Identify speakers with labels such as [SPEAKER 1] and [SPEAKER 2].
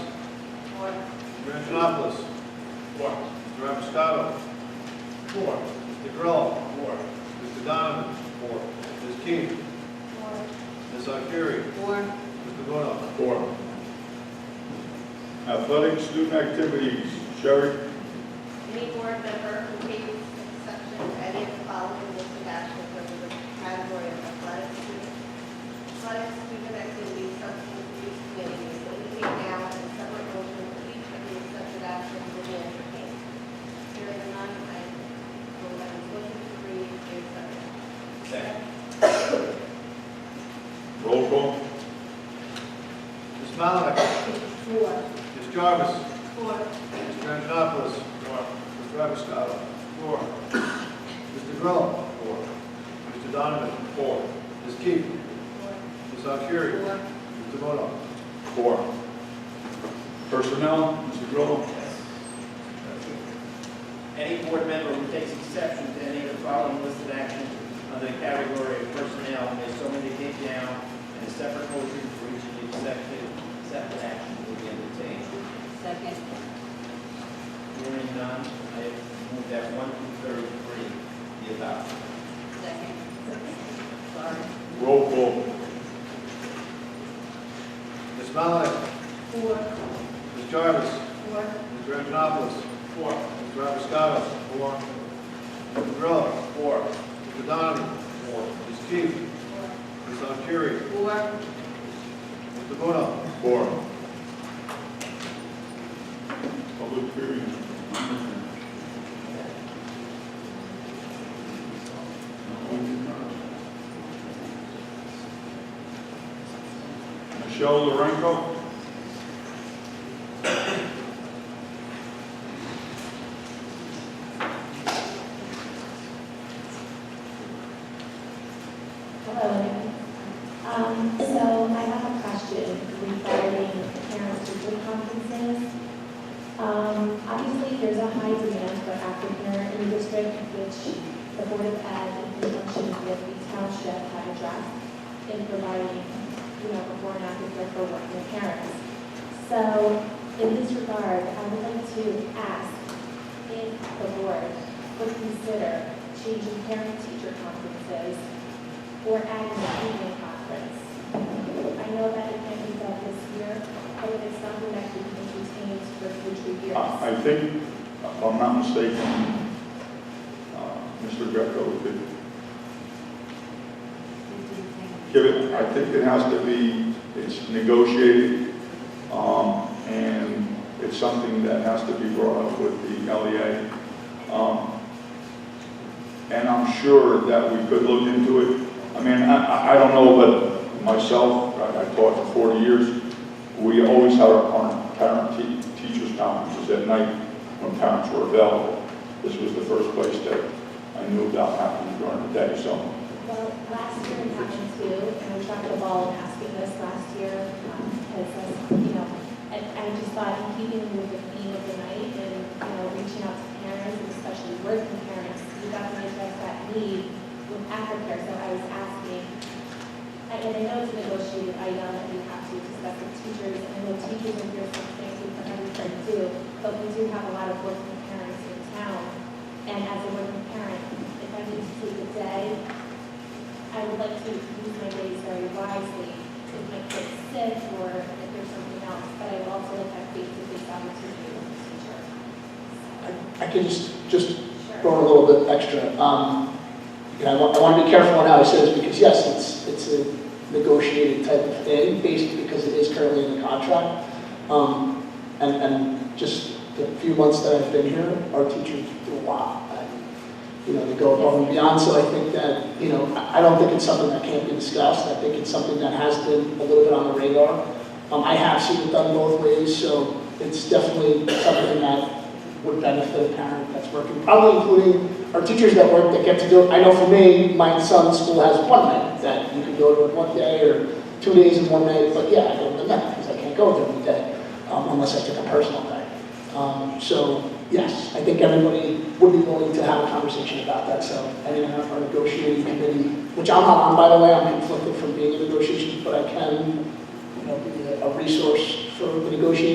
[SPEAKER 1] Mr. Antonopoulos.
[SPEAKER 2] Four.
[SPEAKER 1] Mr. Rappustato.
[SPEAKER 2] Four.
[SPEAKER 1] Mr. Grillo.
[SPEAKER 2] Four.
[SPEAKER 1] Mr. Donovan. Four. Ms. King. Ms. Akhiri.
[SPEAKER 3] Four.
[SPEAKER 1] Mr. Bono.
[SPEAKER 2] Four.
[SPEAKER 4] Athletic student activities, Sherry.
[SPEAKER 3] Any board member who takes exception to any of the following listed actions under the category of athletic student, athletic student activities, substance abuse committee, is limited now and separate motion for each of the accepted actions will be entertained. Here is none, I will let the motion to read the accepted.
[SPEAKER 2] Second.
[SPEAKER 4] Roll call.
[SPEAKER 1] Ms. Malinick.
[SPEAKER 3] Four.
[SPEAKER 1] Ms. Jarvis.
[SPEAKER 3] Four.
[SPEAKER 1] Mr. Antonopoulos.
[SPEAKER 2] Four.
[SPEAKER 1] Mr. Rappustato.
[SPEAKER 2] Four.
[SPEAKER 1] Mr. Grillo. Four. Mr. Donovan. Four. Ms. King.
[SPEAKER 3] Four.
[SPEAKER 1] Ms. Akhiri.
[SPEAKER 3] Four.
[SPEAKER 1] Mr. Bono.
[SPEAKER 4] Four. Personnel, Mr. Grillo.
[SPEAKER 2] Any board member who takes exception to any of the following listed actions under the category of personnel may so indicate now, and a separate motion for each of the accepted, accepted actions will be entertained.
[SPEAKER 3] Second.
[SPEAKER 2] Hearing none, I move that one through thirty-three be adopted.
[SPEAKER 3] Second. Sorry.
[SPEAKER 4] Roll call.
[SPEAKER 1] Ms. Malinick.
[SPEAKER 3] Four.
[SPEAKER 1] Ms. Jarvis.
[SPEAKER 3] Four.
[SPEAKER 1] Mr. Antonopoulos.
[SPEAKER 2] Four.
[SPEAKER 1] Mr. Rappustato. Four. Mr. Grillo.
[SPEAKER 2] Four.
[SPEAKER 1] Mr. Donovan. Four. Ms. King. Ms. Akhiri.
[SPEAKER 3] Four.
[SPEAKER 1] Mr. Bono.
[SPEAKER 4] Four. Public hearing. Michelle Lorenco.
[SPEAKER 5] Hello. again. Um, so I have a question regarding parent teacher conferences. Um, obviously, there's a high demand for active parent in the district, which the Board of Ed, in conjunction with the township, have addressed in providing, you know, before and after care for working parents. So in this regard, I would like to ask if the board would consider changing parent-teacher conferences or adding an evening conference. I know that it can't be done this year, but it is something that we can retain for future years.
[SPEAKER 4] Uh, I I think, if I'm not mistaken, uh, Mr. Greco could give it, I think it has to be, it's negotiated, um, and it's something that has to be brought up with the LEA. Um, And I'm sure that we could look into it. I mean, I, I- I don't know, but myself, I I taught for 40 years, we always had our parent- parent te- teachers conferences at night when parents were available. This was the first place that I knew about happening during the day, so
[SPEAKER 5] Well, last year it happened too, and we dropped the ball in asking this last year, um, because, that's, you know, and I just thought in keeping with the theme of the night and, you know, reaching out to parents, and especially working parents, we got to address that need with aftercare, so I was asking, I- and I know it's a negotiated item, and we have to discuss with teachers, and I know teachers are here for things we can understand too, but we do have a lot of working parents in town, and as a working parent, if I need to take a day, I would like to use my days very wisely if my kid's sick or if there's something else, but I would also look at face-to-face opportunity with the teacher.
[SPEAKER 6] I can just, just
[SPEAKER 5] Sure.
[SPEAKER 6] throw in a little bit extra. Um, You know, I want, I want to be careful on how I say this, because yes, it's, it's a negotiated type of thing, based, because it is currently in the contract. Um, And, and just the few months that I've been here, our teachers do a lot. And, You know, they go above and beyond, so I think that, you know, I I don't think it's something that can't be discussed. I think it's something that has been a little bit on the radar. Um, I have seen it done both ways, so it's definitely something that would benefit a parent that's working, probably including our teachers that work, that get to do it. I know for me, my son's school has one night that you can go to it one day or two days in one night, but yeah, I go to that because I can't go there every day um, unless I take a personal day. Um, So, yes, I think everybody would be willing to have a conversation about that, so I didn't have our negotiating committee, which I'm not on, by the way, I'm conflicted from being in negotiations, but I can, you know, be a- a resource for the negotiating